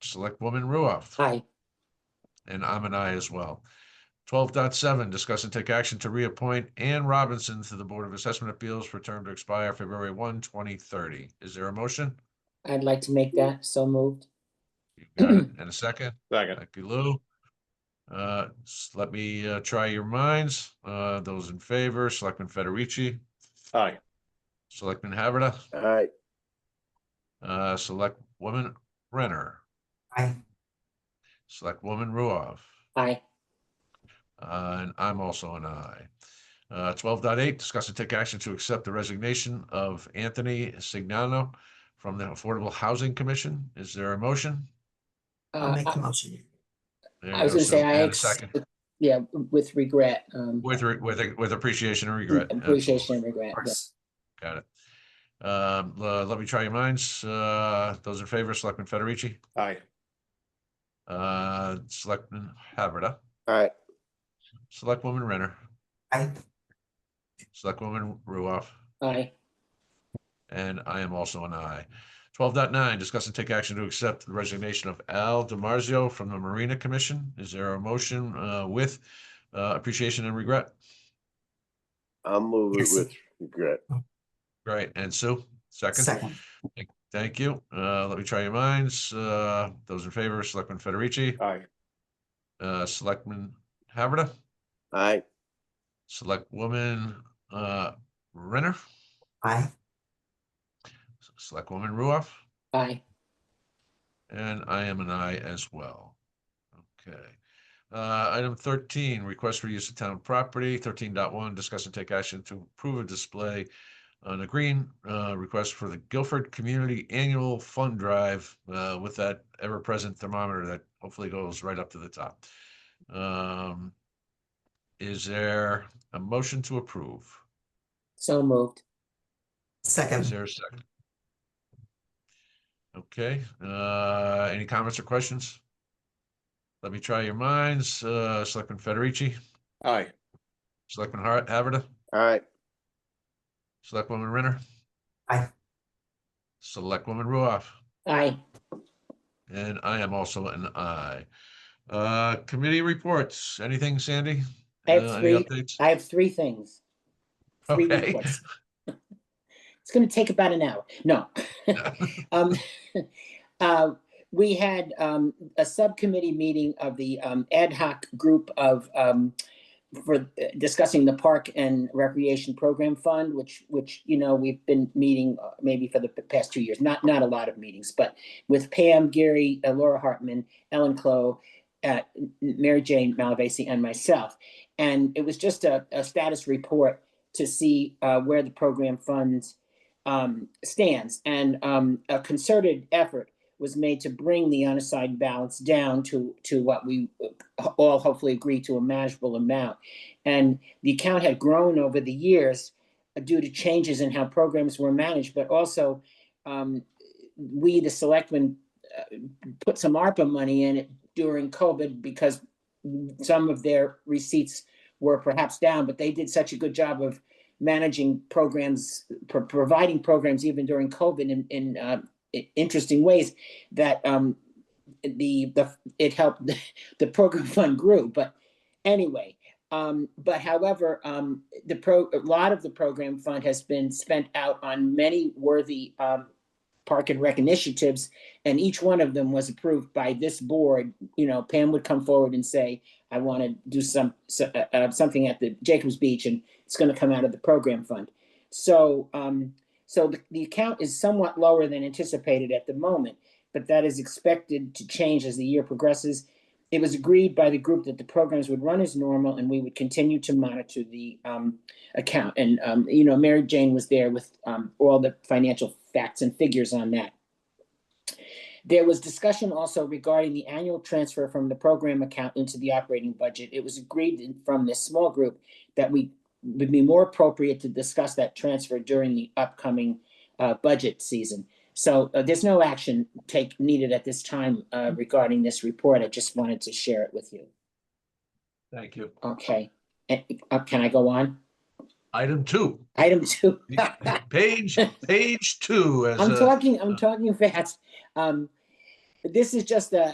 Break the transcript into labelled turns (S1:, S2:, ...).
S1: Selectwoman Ruoff.
S2: Aye.
S1: And I'm an I as well. 12.7 discuss and take action to reappoint Ann Robinson to the Board of Assessment Appeals for a term to expire February 1, 2030. Is there a motion?
S2: I'd like to make that so moved.
S1: You got it. And a second?
S3: Second.
S1: Thank you, Lou. Uh, s- let me, uh, try your minds. Uh, those in favor, Selectman Federici,
S3: Aye.
S1: Selectman Haverda,
S4: aye,
S1: uh, Selectwoman Renner,
S2: Aye.
S1: Selectwoman Ruoff.
S2: Aye.
S1: Uh, and I'm also an aye. Uh, twelve dot eight, discuss and take action to accept the resignation of Anthony Signano from the Affordable Housing Commission. Is there a motion?
S5: I'll
S2: Uh,
S5: make the
S2: I
S5: motion.
S1: There
S2: I was
S1: you go,
S2: gonna say
S1: Sue.
S2: I,
S1: And a
S2: ex-
S1: second.
S2: yeah, with regret, um,
S1: With, re- with, with appreciation and regret.
S2: appreciation and
S1: Absolutely.
S2: regret. yeah.
S1: Got it. Um, le- let me try your minds. Uh, those in favor, Selectman Federici,
S3: Aye.
S1: uh, Selectman Haverda,
S4: aye,
S1: Selectwoman Renner,
S5: Aye.
S1: Selectwoman Ruoff.
S2: Aye,
S1: And I am also an aye. 12.9. discuss and take action to accept the resignation of Al DiMarzio from the Marina Commission. Is there a motion uh, with uh, appreciation and regret?
S4: I'll move it
S5: Yes.
S4: with regret,
S1: Great. And Sue, second.
S5: Second.
S1: Thank you. Uh, Let me try your minds. Uh, Those in favor, Selectman Federici,
S3: Aye.
S1: uh, Selectman Haverda,
S4: aye,
S1: Selectwoman uh, Renner,
S5: Aye.
S1: Selectwoman Ruoff,
S2: aye,
S1: and I am an aye as well. Okay. Uh, item thirteen, request for use of town property, 13.1. discuss and take action to approve a display on a green, uh, request for the Guilford Community Annual Fund Drive, uh, with that ever-present thermometer that hopefully goes right up to the top. Um, is there a motion to approve?
S2: so moved.
S1: Is
S5: Second.
S1: there a second? Okay, uh, any comments or questions? Let me try your minds, uh, Selectman Federici,
S3: Aye.
S1: Selectman Har- Haverda,
S4: aye,
S1: Selectwoman Renner.
S5: Aye.
S1: Selectwoman Ruoff,
S2: Aye,
S1: and I am also an aye. Uh, committee reports, anything, Sandy?
S2: I have
S1: Uh, any
S2: three.
S1: updates?
S2: I have three things. Three
S1: Okay.
S2: reports. It's gonna take about an hour. No. Um, uh, We had um, a subcommittee meeting of the um, ad hoc group of, um, for discussing the Park and Recreation Program Fund, which, which, you know, we've been meeting uh, maybe for the past two years, not, not a lot of meetings, but with Pam, Gary, uh, Laura Hartman, Ellen Clow, uh, Mary Jane Malavasi, and myself. And it was just a, a status report to see uh, where the program funds um, stands. And um, a concerted effort was made to bring the unassigned balance down to, to what we uh, all hopefully agree to a manageable amount. And the account had grown over the years uh, due to changes in how programs were managed, but also um, we, the selectmen, uh, put some ARPA money in it during COVID because some of their receipts were perhaps down, but they did such a good job of managing programs, pro- providing programs even during COVID in, in uh, i- interesting ways that um, the, the, it helped, the program fund grew, but anyway. Um, but however, um, the pro, a lot of the program fund has been spent out on many worthy um, park and rec initiatives, and each one of them was approved by this board. You know, Pam would come forward and say, I want to do some, so- uh, uh, something at the Jacobs Beach and it's going to come out of the program fund. So, um, so the, the account is somewhat lower than anticipated at the moment, but that is expected to change as the year progresses. It was agreed by the group that the programs would run as normal and we would continue to monitor the, um, account. And, um, you know, Mary Jane was there with, um, all the financial facts and figures on that. There was discussion also regarding the annual transfer from the program account into the operating budget. It was agreed in- from this small group that we would be more appropriate to discuss that transfer during the upcoming uh, budget season. So uh, there's no action take needed at this time uh, regarding this report. I just wanted to share it with you.
S1: Thank you.
S2: Okay. And, uh, Can I go on?
S1: Item two,
S2: Item two.
S1: page, page two. as
S2: I'm
S1: a-
S2: talking, I'm talking fast. Um, But this is just a,